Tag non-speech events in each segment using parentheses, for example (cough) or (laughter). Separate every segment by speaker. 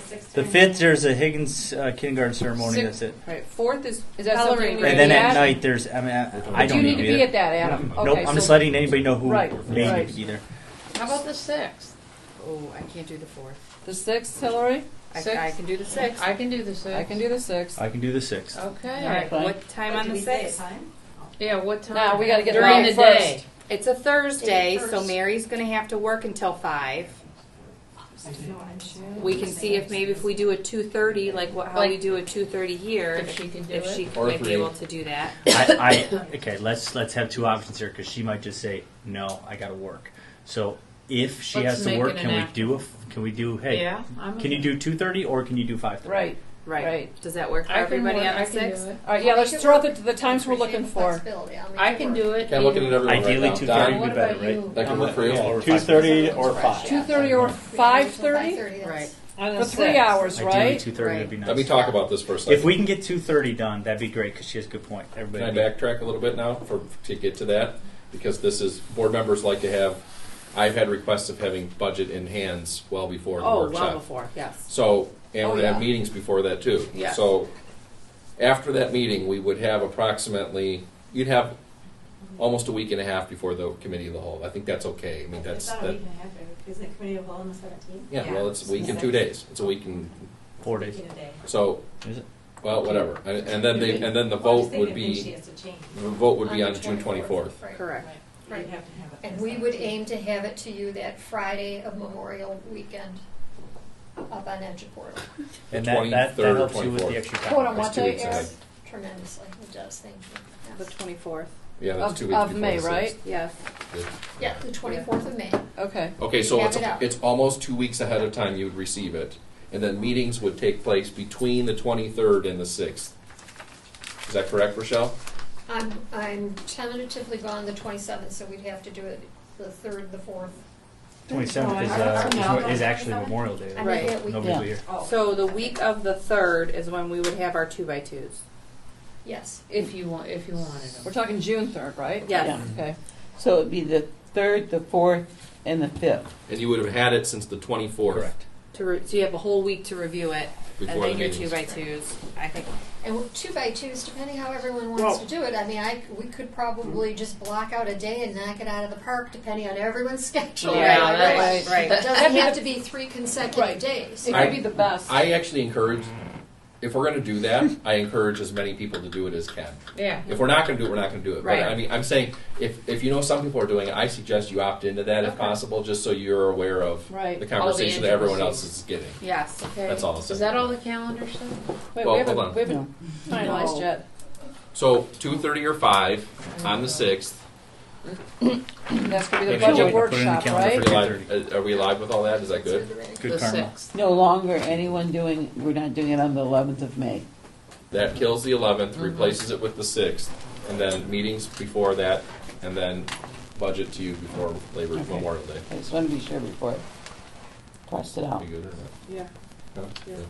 Speaker 1: sixth.
Speaker 2: The fifth, there's a Higgins uh, kindergarten ceremony.
Speaker 1: Six-
Speaker 2: That's it.
Speaker 1: Right. Fourth is
Speaker 3: Is that something
Speaker 1: Coloring
Speaker 3: we
Speaker 1: Right.
Speaker 2: And then
Speaker 3: need to
Speaker 2: at
Speaker 3: add?
Speaker 2: night, there's. I mean, I, I
Speaker 3: Do
Speaker 2: don't
Speaker 3: you
Speaker 2: need to be there.
Speaker 3: at that, Adam?
Speaker 2: nope.
Speaker 3: Okay,
Speaker 2: I'm just
Speaker 3: so-
Speaker 2: letting anybody know who
Speaker 3: Right,
Speaker 2: may
Speaker 3: right.
Speaker 2: be there.
Speaker 4: How about the sixth? Oh, I can't do the fourth.
Speaker 3: The sixth, Hillary?
Speaker 4: I,
Speaker 3: Sixth?
Speaker 4: I can do the sixth.
Speaker 1: I can do the sixth.
Speaker 3: I can do the sixth.
Speaker 2: I can do the sixth.
Speaker 4: All
Speaker 1: Okay.
Speaker 4: right.
Speaker 5: Fine.
Speaker 4: What time on the sixth?
Speaker 1: Yeah. What time?
Speaker 3: Now, we gotta get
Speaker 1: during
Speaker 3: that
Speaker 1: the
Speaker 3: first.
Speaker 1: day.
Speaker 4: It's a Thursday, so
Speaker 5: First.
Speaker 4: Mary's going to have to work until five. We can see if maybe if we do a two thirty, like what, how we
Speaker 1: Like-
Speaker 4: do a two thirty here,
Speaker 1: If she can do
Speaker 4: if
Speaker 1: it.
Speaker 4: she
Speaker 6: Or
Speaker 4: might be
Speaker 6: three.
Speaker 4: able to do that.
Speaker 2: I, I okay. Let's let's have two options here because she might just say no. I got to work. So if she
Speaker 1: Let's
Speaker 2: has to
Speaker 1: make
Speaker 2: work,
Speaker 1: it
Speaker 2: can
Speaker 1: an
Speaker 2: we
Speaker 1: act-
Speaker 2: do a? f- Can we do? Hey,
Speaker 1: Yeah. I'm
Speaker 2: can you do two thirty or can you do five thirty?
Speaker 3: Right. Right.
Speaker 4: Does that work for
Speaker 1: I can
Speaker 4: everybody
Speaker 1: work,
Speaker 4: on
Speaker 1: I
Speaker 4: the
Speaker 1: can do
Speaker 4: sixth?
Speaker 1: it.
Speaker 3: All right, yeah, let's throw the, the times we're looking for.
Speaker 1: I can do it.
Speaker 6: Okay, I'm looking at
Speaker 1: either-
Speaker 6: everyone
Speaker 2: Ideally,
Speaker 6: right
Speaker 2: two
Speaker 6: now.
Speaker 2: thirty
Speaker 6: Don,
Speaker 2: would be
Speaker 1: What
Speaker 2: better,
Speaker 1: about
Speaker 2: right?
Speaker 1: you?
Speaker 6: That can work for you?
Speaker 7: Yeah,
Speaker 2: Or
Speaker 7: two thirty or
Speaker 5: five.
Speaker 7: five.
Speaker 3: Two thirty or five thirty?
Speaker 5: Right.
Speaker 1: On the
Speaker 3: For three
Speaker 1: sixth.
Speaker 3: hours,
Speaker 2: Ideally,
Speaker 3: right?
Speaker 2: two thirty would be nice.
Speaker 6: Let me talk about this for a second.
Speaker 2: If we can get two thirty done, that'd be great because she has a good point.
Speaker 6: Can I
Speaker 2: Everybody,
Speaker 6: backtrack a little bit now for, to get to that? Because this is, board members like to have, I've had requests of having budget in hands well before the
Speaker 4: Oh,
Speaker 6: workshop.
Speaker 4: well before, yes.
Speaker 6: So, and
Speaker 4: Oh,
Speaker 6: we're gonna have
Speaker 4: yeah.
Speaker 6: meetings before that too.
Speaker 4: Yeah.
Speaker 6: So, after that meeting, we would have approximately, you'd have almost a week and a half before the committee of the whole. I think that's okay. Oh, I mean, that's,
Speaker 5: It's not a
Speaker 6: that,
Speaker 5: week and a half, isn't it committee of all on the seventeenth?
Speaker 6: yeah, well, it's a week and two days. It's a week and,
Speaker 2: four days.
Speaker 5: In a day.
Speaker 6: so,
Speaker 2: Is it?
Speaker 6: well, whatever. And, and then they, and then the
Speaker 5: Well, I was
Speaker 6: vote would
Speaker 5: thinking if she
Speaker 6: be,
Speaker 5: has to change.
Speaker 6: the vote would be on June twenty-fourth.
Speaker 4: Correct.
Speaker 5: You'd have to have it.
Speaker 8: And we would aim to have it to you that Friday of Memorial Weekend up on Edge Portal
Speaker 2: And that, that,
Speaker 6: 23rd
Speaker 2: that
Speaker 6: or
Speaker 2: helps you with
Speaker 6: 24th.
Speaker 2: the extra time.
Speaker 3: Hold on,
Speaker 6: That's
Speaker 3: what
Speaker 6: two
Speaker 3: day,
Speaker 6: weeks
Speaker 3: Eric?
Speaker 6: ahead.
Speaker 8: tremendously. It does, thank
Speaker 4: The
Speaker 8: you.
Speaker 4: twenty-fourth,
Speaker 6: Yeah, that's
Speaker 3: Of,
Speaker 6: two weeks
Speaker 3: of
Speaker 6: before
Speaker 3: May,
Speaker 6: the
Speaker 3: right?
Speaker 4: yes.
Speaker 6: sixth.
Speaker 8: Yeah, the 24th of May.
Speaker 3: Okay.
Speaker 6: Okay, so
Speaker 8: Have
Speaker 6: it's,
Speaker 8: it out.
Speaker 6: it's almost two weeks ahead of time you would receive it, and then meetings would take place between the twenty-third and the sixth. Is that correct, Rochelle?
Speaker 8: I'm, I'm tentatively gone the 27th, so we'd have to do it the 3rd, the 4th.
Speaker 2: Twenty seventh is
Speaker 5: I don't
Speaker 2: uh,
Speaker 5: know.
Speaker 2: is, is actually Memorial Day.
Speaker 8: I
Speaker 2: though.
Speaker 4: Right.
Speaker 8: think that
Speaker 2: Nobody
Speaker 8: weekend.
Speaker 2: will be here.
Speaker 5: Oh.
Speaker 4: So the week of the third is when we would have our two-by-twos.
Speaker 8: Yes.
Speaker 1: If you want, if you wanted them.
Speaker 3: We're talking June third, right?
Speaker 4: Yes.
Speaker 3: Okay.
Speaker 5: So it'd be the third, the fourth, and the fifth.
Speaker 6: And you would have had it since the twenty-fourth.
Speaker 2: Correct.
Speaker 4: To re- so you have a whole week to review it,
Speaker 6: Before
Speaker 4: and then
Speaker 6: the
Speaker 4: your
Speaker 6: meetings.
Speaker 4: two-by-twos, I think.
Speaker 8: And with two by twos, depending how everyone wants
Speaker 5: Well-
Speaker 8: to do it, I mean, I, we could probably just block out a day and knock it out of the park, depending on everyone's (laughs) schedule.
Speaker 4: Yeah,
Speaker 8: Right.
Speaker 4: that's right.
Speaker 8: It doesn't
Speaker 3: That'd be
Speaker 8: have
Speaker 3: the-
Speaker 8: to be
Speaker 4: (laughs)
Speaker 8: three
Speaker 3: Right.
Speaker 8: consecutive days.
Speaker 3: It
Speaker 6: I-
Speaker 3: could be the best.
Speaker 6: I actually encourage, if we're gonna do that, I encourage as many people to do it as can.
Speaker 1: Yeah.
Speaker 6: If we're not gonna do it, we're not gonna do it. But I
Speaker 4: Right.
Speaker 6: mean, I'm saying, if, if you know some people are doing it, I suggest you opt into that if
Speaker 3: Okay.
Speaker 6: possible, just so you're aware of
Speaker 3: Right.
Speaker 6: the conversation that everyone else
Speaker 1: intricacies.
Speaker 6: is getting.
Speaker 4: Yes.
Speaker 1: Okay.
Speaker 6: That's all I'll say.
Speaker 1: Is that all the calendar stuff?
Speaker 3: Wait,
Speaker 6: well,
Speaker 3: we haven't,
Speaker 6: hold on.
Speaker 3: we haven't finalized yet.
Speaker 6: So two thirty or five on the sixth.
Speaker 3: That's gonna be the
Speaker 6: Maybe we
Speaker 3: budget
Speaker 6: can
Speaker 2: put it in the
Speaker 3: workshop,
Speaker 2: calendar for
Speaker 3: right?
Speaker 6: Are we live- are we live with all that? Is that good?
Speaker 2: Good
Speaker 1: the
Speaker 2: karma.
Speaker 1: sixth.
Speaker 5: No longer anyone doing, we're not doing it on the eleventh of May.
Speaker 6: That kills the eleventh,
Speaker 1: Mm-hmm.
Speaker 6: replaces it with the sixth, and then meetings before that, and then budget to you before Labor
Speaker 5: Okay.
Speaker 6: Memorial Day.
Speaker 5: I just want to be sure before I cross it out.
Speaker 6: Be good or not?
Speaker 3: Yeah.
Speaker 6: No?
Speaker 3: Yeah.
Speaker 6: Good.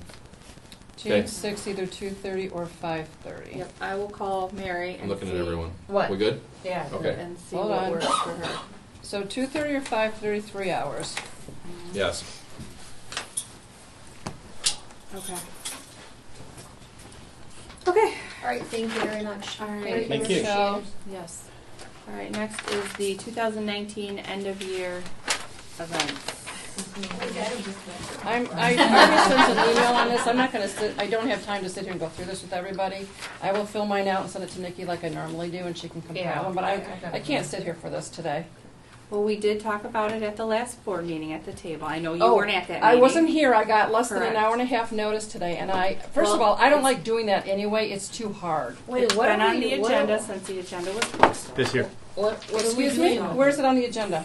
Speaker 3: June
Speaker 6: Okay.
Speaker 3: sixth, either two thirty or five thirty.
Speaker 4: Yep. I will call Mary and
Speaker 6: I'm looking at
Speaker 4: see-
Speaker 6: everyone.
Speaker 4: What?
Speaker 6: We good?
Speaker 4: Yeah.
Speaker 6: Okay.
Speaker 4: And see
Speaker 3: Hold
Speaker 4: what
Speaker 3: on.
Speaker 4: works for her.
Speaker 3: So two thirty or five thirty, three hours.
Speaker 1: Mm-hmm.
Speaker 6: Yes.
Speaker 4: Okay. Okay.
Speaker 8: All right, thank you very much.
Speaker 4: All right.
Speaker 8: Thank you,
Speaker 2: Thank you.
Speaker 8: Rochelle.
Speaker 4: Yes. All right. Next is the 2019 end of year events.
Speaker 3: I'm, I already sent an email on this, I'm not gonna sit, I don't have time to sit here and go through this with everybody. I will fill mine out and send it to Nikki like I normally do, and she can compile
Speaker 1: Yeah,
Speaker 3: them, but
Speaker 1: I-
Speaker 3: I,
Speaker 1: I got
Speaker 3: I can't sit here for this today.
Speaker 4: Well, we did talk about it at the last board meeting at the table. I know you
Speaker 3: Oh,
Speaker 4: weren't at that.
Speaker 3: I
Speaker 4: meeting.
Speaker 3: wasn't here, I got less than an
Speaker 4: Correct.
Speaker 3: hour and a half notice today, and I, first of
Speaker 4: Well,
Speaker 3: all, I don't
Speaker 4: it's-
Speaker 3: like doing that anyway, it's too hard.
Speaker 4: It's
Speaker 1: what
Speaker 4: been
Speaker 1: are
Speaker 4: on
Speaker 1: we-
Speaker 4: the
Speaker 1: what
Speaker 4: agenda
Speaker 1: are-
Speaker 4: since the agenda was posted.
Speaker 2: This here
Speaker 1: What, what are we
Speaker 3: Excuse me,
Speaker 1: doing?
Speaker 3: where is it on the agenda?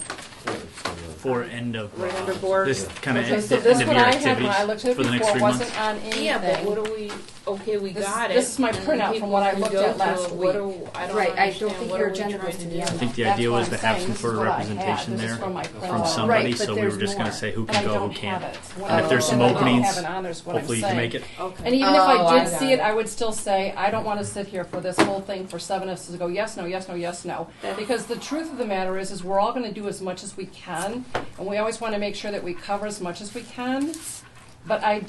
Speaker 2: for end of
Speaker 4: Right under
Speaker 2: uh,
Speaker 4: board.
Speaker 2: this kind of
Speaker 3: Okay,
Speaker 2: end,
Speaker 3: so
Speaker 2: end
Speaker 3: this
Speaker 2: of
Speaker 3: what
Speaker 2: year
Speaker 3: I had when I
Speaker 2: activities
Speaker 3: looked at it
Speaker 2: for the next
Speaker 3: before
Speaker 2: three months.
Speaker 3: wasn't on anything.
Speaker 1: Yeah, but what are we? Okay, we
Speaker 3: This-
Speaker 1: got it.
Speaker 3: this is my
Speaker 1: and
Speaker 3: printout
Speaker 1: people
Speaker 3: from what I
Speaker 1: can
Speaker 3: looked
Speaker 1: go
Speaker 3: at
Speaker 1: to
Speaker 3: last week.
Speaker 1: what are- I don't
Speaker 4: Right, I don't
Speaker 1: understand.
Speaker 4: think
Speaker 1: What
Speaker 4: your
Speaker 1: are we
Speaker 4: agenda
Speaker 1: trying
Speaker 4: was
Speaker 1: to
Speaker 4: in
Speaker 1: do?
Speaker 4: the
Speaker 2: I think the
Speaker 3: That's
Speaker 2: idea
Speaker 3: what
Speaker 2: was
Speaker 3: I'm
Speaker 2: to have some
Speaker 3: saying. This is
Speaker 2: sort of
Speaker 3: what I had.
Speaker 2: representation
Speaker 3: This is
Speaker 2: there
Speaker 3: from my
Speaker 2: from
Speaker 3: printout.
Speaker 2: somebody,
Speaker 4: Right, but
Speaker 2: so we
Speaker 4: there's
Speaker 2: were just going
Speaker 4: more.
Speaker 2: to say who
Speaker 3: And I
Speaker 2: can go,
Speaker 3: don't
Speaker 2: who can't.
Speaker 3: have it. It's what
Speaker 2: And
Speaker 3: I
Speaker 2: if there's some
Speaker 3: said I don't
Speaker 2: openings,
Speaker 3: have it on there is what I'm
Speaker 2: Hopefully you can
Speaker 3: saying.
Speaker 2: make it.
Speaker 4: Okay.
Speaker 3: And even if
Speaker 1: Oh,
Speaker 3: I
Speaker 1: I
Speaker 3: did
Speaker 1: got
Speaker 3: see it,
Speaker 1: it.
Speaker 3: I would still say, I don't want to sit here for this whole thing for seven of us to go, yes, no, yes, no, yes, no.
Speaker 4: That's-
Speaker 3: Because the truth of the matter is, is we're all going to do as much as we can, and we always want to make sure that we cover as much as we can. But I,